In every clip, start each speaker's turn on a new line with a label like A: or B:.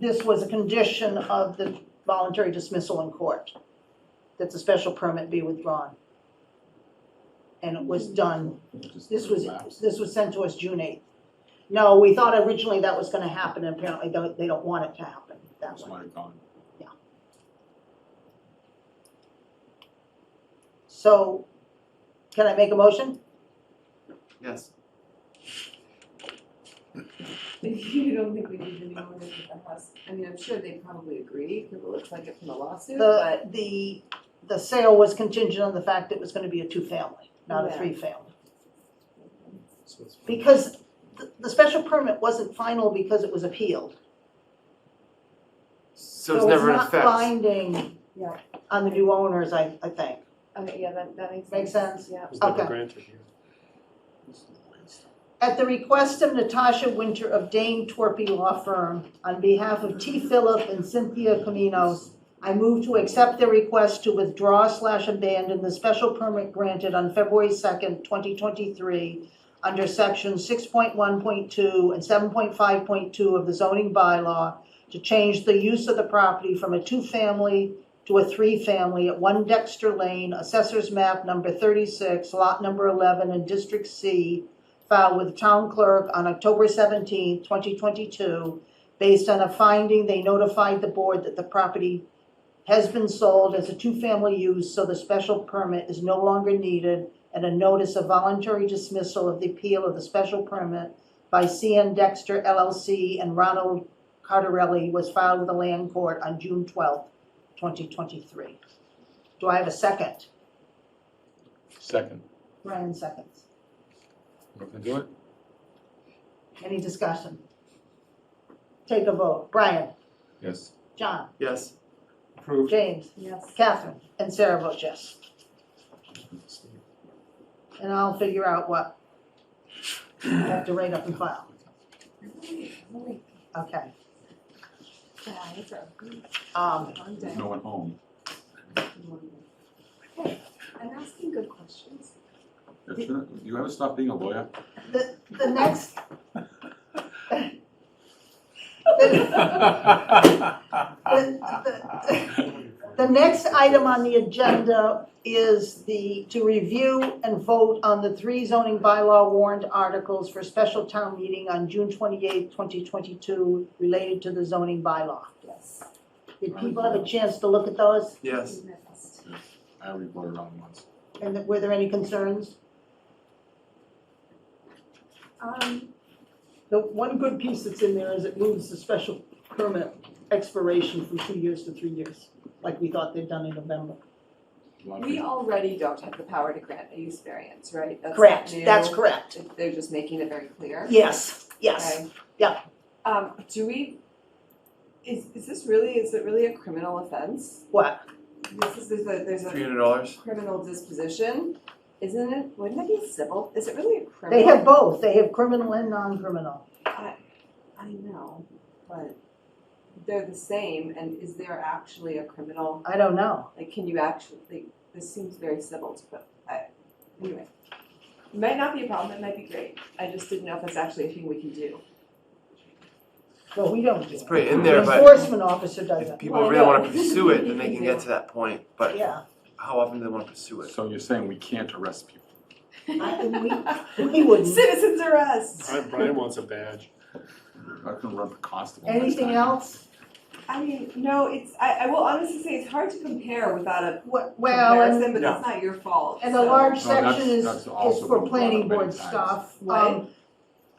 A: this was a condition of the voluntary dismissal in court, that the special permit be withdrawn. And it was done, this was, this was sent to us June eighth. No, we thought originally that was gonna happen, and apparently don't- they don't want it to happen that
B: That's
A: way.
B: my comment.
A: So, can I make a motion?
C: Yes.
D: You don't think we need any more than the House, I mean, I'm sure they probably agree, because it looks like it from the lawsuit, but
A: The, the, the sale was contingent on the fact it was gonna be a two-family, not a
D: Yeah.
A: three-family. Because the, the special permit wasn't final because it was appealed.
C: So it's never in
A: not
C: effect.
A: binding
D: Yeah.
A: on the new owners, I, I think.
D: okay, yeah, that that makes sense.
A: Makes sense.
D: Yeah.
E: was never
A: Okay.
E: granted here.
A: At the request of Natasha Winter of Dane Torpy Law Firm, on behalf of T. Phillip and Cynthia Caminos, I move to accept their request to withdraw slash abandon the special permit granted on February second, twenty twenty-three under section six point one point two and seven point five point two of the zoning bylaw to change the use of the property from a two-family to a three-family at One Dexter Lane, Assessor's Map number thirty-six, lot number eleven in District C, filed with the town clerk on October seventeenth, twenty twenty-two, based on a finding they notified the board that the property has been sold as a two-family use, so the special permit is no longer needed, and a notice of voluntary dismissal of the appeal of the special permit by CN Dexter LLC and Ronald Cardarelli was filed with the land court on June twelfth, twenty twenty-three. Do I have a second?
B: Second,
A: Ryan seconds.
B: want to do it?
A: Any discussion? Take a vote. Brian,
B: Yes.
A: John,
C: Yes.
B: Approved.
A: James,
D: Yes.
A: Catherine, and Sarah votes yes. And I'll figure out what I have to write up and file. Okay.
D: Yeah, it's a good
A: Um,
D: one day.
B: There's no one home.
D: Hey, I'm asking good questions.
B: That's it. You ever stop being a lawyer?
A: the, the next, The next item on the agenda is the, to review and vote on the three zoning bylaw warrant articles for special town meeting on June twenty-eighth, twenty twenty-two, related to the zoning bylaw.
D: Yes.
A: Did people have a chance to look at those,
C: Yes.
D: Yes.
B: I already voted on once.
A: and were there any concerns?
D: Um,
A: The one good piece that's in there is it moves the special permit expiration from two years to three years, like we thought they'd done in November.
B: A lot of
D: we
B: people-
D: already don't have the power to grant a use variance, right? That's not
A: Correct,
D: new.
A: that's correct.
D: They're just making it very clear.
A: Yes, yes.
D: Okay.
A: yeah.
D: Um, do we, is, is this really, is it really a criminal offense?
A: What?
D: This is, there's a, there's
C: Three
D: a
C: hundred dollars.
D: criminal disposition, isn't it, wouldn't it be civil? Is it really a criminal?
A: They have both. They have criminal and non-criminal.
D: I know, but they're the same, and is there actually a criminal,
A: I don't know.
D: like, can you actually, like, this seems very civil to, but, I, anyway. It Might not be a problem, it might be great, I just didn't know if that's actually a thing we can do.
A: Well, we don't do
C: It's
A: it.
C: pretty in
A: The
C: there, but
A: enforcement officer does
C: if
A: it.
C: people really wanna pursue it, then they can get to that point, but
A: Yeah.
C: how often do they wanna pursue it?
B: So you're saying we can't arrest people?
A: I- We wouldn't.
D: Citizens arrest!
E: Brian- Brian wants a badge.
B: I can run for constable. next
A: Anything
B: time.
A: else?
D: I mean, no, it's, I, I will honestly say it's hard to compare without a
A: Wha- Well, and,
D: comparison, but that's not your fault,
A: and the
D: so.
A: large
B: No, that's-
A: section is,
B: that's
A: is
B: also
A: for
B: been brought
A: planning
B: up many
A: board
B: times.
A: stuff. Um,
D: Right.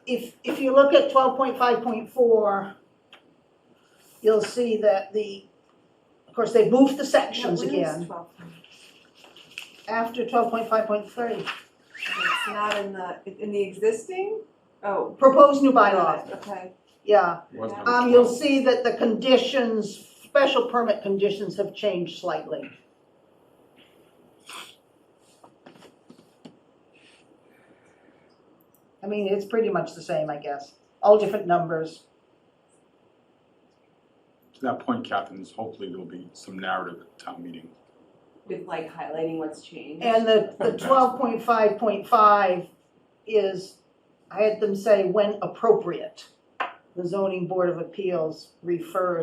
A: If, if you look at twelve point five point four, you'll see that the, of course, they moved the sections
D: What is
A: again
D: 12?
A: after twelve point five point three.
D: It's not in the, in the existing, oh.
A: Proposed new bylaw,
D: Okay,
A: yeah.
B: Was number
A: Um, you'll
B: 12.
A: see that the conditions, special permit conditions have changed slightly. I mean, it's pretty much the same, I guess, all different numbers.
B: To that point, Catherine, is hopefully there'll be some narrative at town meeting.
D: with like highlighting what's changed.
A: And the, the twelve point five point five is, I had them say when appropriate. the zoning board of appeals referred